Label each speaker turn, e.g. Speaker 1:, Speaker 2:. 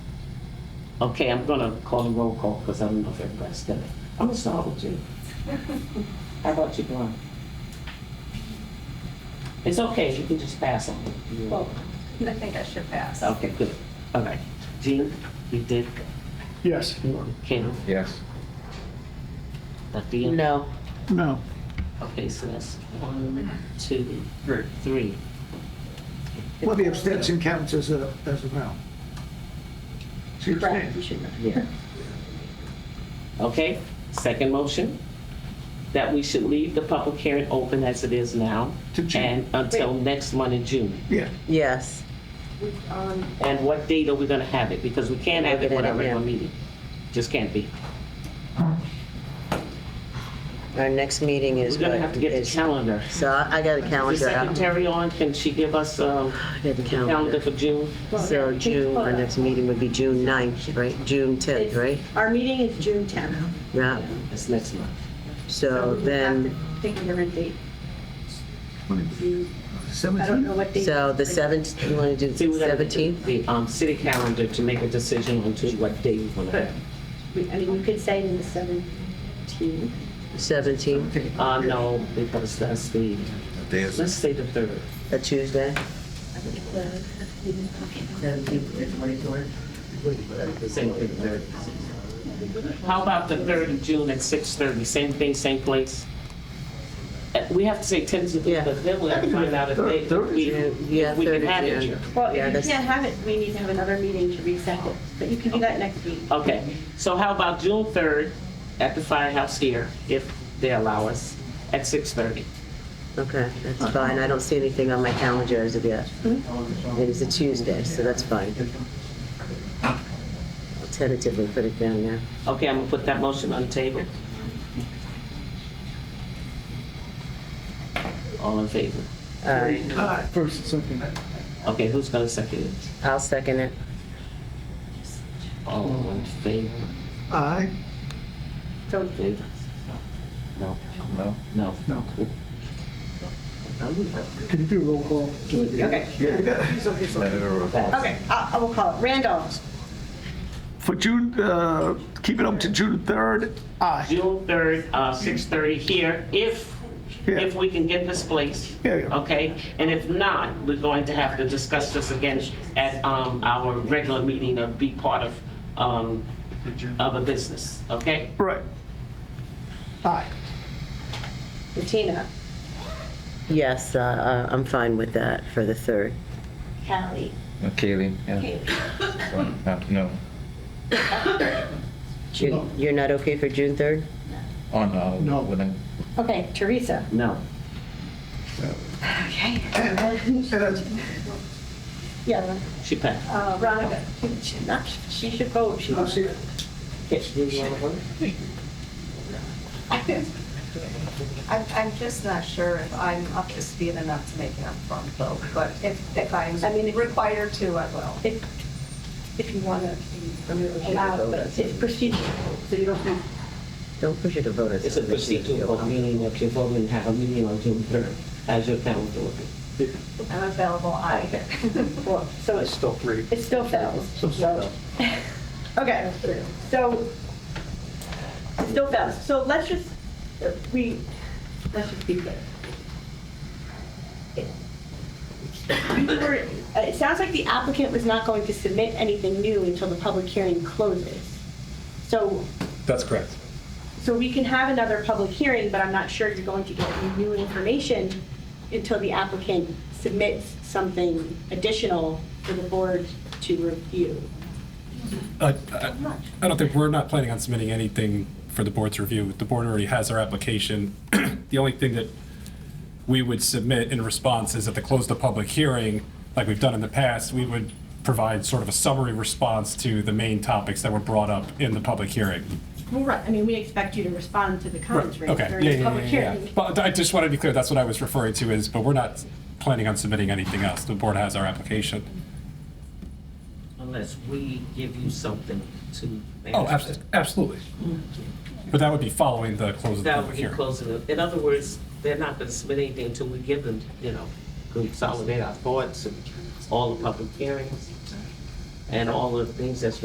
Speaker 1: Okay, I'm gonna call a roll call because I don't know if everybody's done it. I'm gonna start with you. How about you, Brian? It's okay, you can just pass on.
Speaker 2: Well, I think I should pass.
Speaker 1: Oh, Okay, good. All right. Gene, you did,
Speaker 3: Yes.
Speaker 1: Kim,
Speaker 4: Yes.
Speaker 1: Dr. No.
Speaker 3: No.
Speaker 1: Okay, so that's one, two, three.
Speaker 3: Well, the abstention counts as a, as a no. She abstained.
Speaker 1: Yeah. Okay, second motion, that we should leave the public hearing open as it is now
Speaker 3: To June.
Speaker 1: and until next month in June.
Speaker 3: Yeah,
Speaker 5: Yes,
Speaker 1: And what date are we gonna have it? Because we can't have it
Speaker 5: Look at it,
Speaker 1: without a regular
Speaker 5: yeah.
Speaker 1: meeting. Just can't be.
Speaker 5: our next meeting is.
Speaker 1: We're gonna
Speaker 5: what
Speaker 1: have to get the
Speaker 5: is-
Speaker 1: calendar.
Speaker 5: So I I got a
Speaker 1: Is
Speaker 5: calendar out.
Speaker 1: secretary on, can she give us um,
Speaker 5: I got the
Speaker 1: the calendar
Speaker 5: calendar.
Speaker 1: for June?
Speaker 5: So June, our next meeting would be June 9th, right? June 10th, right?
Speaker 6: Our meeting is June 10th.
Speaker 5: Yeah,
Speaker 1: It's next month.
Speaker 5: so then,
Speaker 2: Think of a date. I don't know
Speaker 3: seventeen.
Speaker 2: what date.
Speaker 5: so the 7th, you want to do
Speaker 1: See,
Speaker 5: the
Speaker 1: we gotta get
Speaker 5: 17th?
Speaker 1: The um, city calendar to make a decision on to what day we wanna
Speaker 2: But,
Speaker 1: have.
Speaker 2: we- I mean, you could say in the 17th.
Speaker 5: 17th,
Speaker 1: Uh, no, because that's the, let's say the third.
Speaker 5: a Tuesday?
Speaker 1: Same thing, third. How about the third of June at six thirty? Same thing, same place? Uh, We have to say tentatively,
Speaker 5: Yeah.
Speaker 1: but then we'll have to find out if
Speaker 3: Third-
Speaker 1: they,
Speaker 3: third of
Speaker 1: we,
Speaker 5: June. Yeah,
Speaker 1: if we can
Speaker 5: third of
Speaker 1: have it
Speaker 5: June.
Speaker 1: here.
Speaker 6: Well,
Speaker 5: Yeah,
Speaker 6: if you
Speaker 5: that's-
Speaker 6: can't have it, we need to have another meeting to reset it, but you can do that next week.
Speaker 1: Okay, so how about June third at the firehouse here, if they allow us, at six thirty?
Speaker 5: Okay, that's fine. I don't see anything on my calendar as of yet. It is a Tuesday, so that's fine. I'll tentatively put it down there.
Speaker 1: Okay, I'm gonna put that motion on the table. All in favor?
Speaker 5: All right,
Speaker 3: Aye, First and second.
Speaker 1: Okay, who's gonna second it?
Speaker 5: I'll second it.
Speaker 1: All in favor?
Speaker 3: Aye,
Speaker 1: Favor? No.
Speaker 4: No.
Speaker 1: No.
Speaker 3: no. Can you do a roll call?
Speaker 6: Okay, okay, I I will call it. Randall?
Speaker 3: For June, uh, keep it up to June 3rd. Aye.
Speaker 1: June third, uh, six thirty here, if, if we can get this place.
Speaker 3: Yeah, yeah.
Speaker 1: Okay, and if not, we're going to have to discuss this again at, um, our regular meeting and be part of, um, of a business, okay?
Speaker 3: Right. Aye.
Speaker 6: Bettina?
Speaker 5: Yes, uh, uh, I'm fine with that for the 3rd.
Speaker 6: Callie?
Speaker 4: Kaylee, yeah. Uh, No,
Speaker 5: You're, you're not okay for June 3rd?
Speaker 4: oh, no.
Speaker 3: No.
Speaker 4: wouldn't-
Speaker 6: Okay, Teresa?
Speaker 1: No.
Speaker 6: Okay. Yeah,
Speaker 1: She passed.
Speaker 6: uh, Veronica, she- she- not- she should vote. She
Speaker 3: I'll see.
Speaker 2: I'm, I'm just not sure if I'm up to speed enough to make an upfront vote, but if, if I'm
Speaker 6: I mean, if-
Speaker 2: required to, I will.
Speaker 6: If, if you want to allow, but it's procedure, so you don't have
Speaker 5: Don't push it to vote.
Speaker 1: It's a procedural meeting, if you're voting, have a meeting on June third, as your calendar will be.
Speaker 2: I'm available either.
Speaker 6: Well, so it's still three. It still fails. So- Okay, so, it still fails. So let's just, we, let's just be clear. It we were- uh, it sounds like the applicant was not going to submit anything new until the public hearing closes. So,
Speaker 7: That's correct.
Speaker 6: so we can have another public hearing, but I'm not sure you're going to get any new information until the applicant submits something additional for the board to review.
Speaker 7: I I- Uh, I don't think, we're not planning on submitting anything for the board's review. The board already has our application. The only thing that we would submit in response is at the close of the public hearing, like we've done in the past, we would provide sort of a summary response to the main topics that were brought up in the public hearing.
Speaker 6: Well, right, I mean, we expect you to respond to the comments raised
Speaker 7: Okay,
Speaker 6: during
Speaker 7: yeah,
Speaker 6: the
Speaker 7: yeah,
Speaker 6: public
Speaker 7: yeah, yeah.
Speaker 6: hearing.
Speaker 7: But I just wanted to be clear, that's what I was referring to is, but we're not planning on submitting anything else. The board has our application.
Speaker 1: Unless we give you something to.
Speaker 7: Oh, abso- absolutely. But that would be following the close of the
Speaker 1: That
Speaker 7: public
Speaker 1: would be
Speaker 7: hearing.
Speaker 1: closing it. In other words, they're not gonna submit anything until we give them, you know, consolidate our thoughts and all the public hearings and all the things that's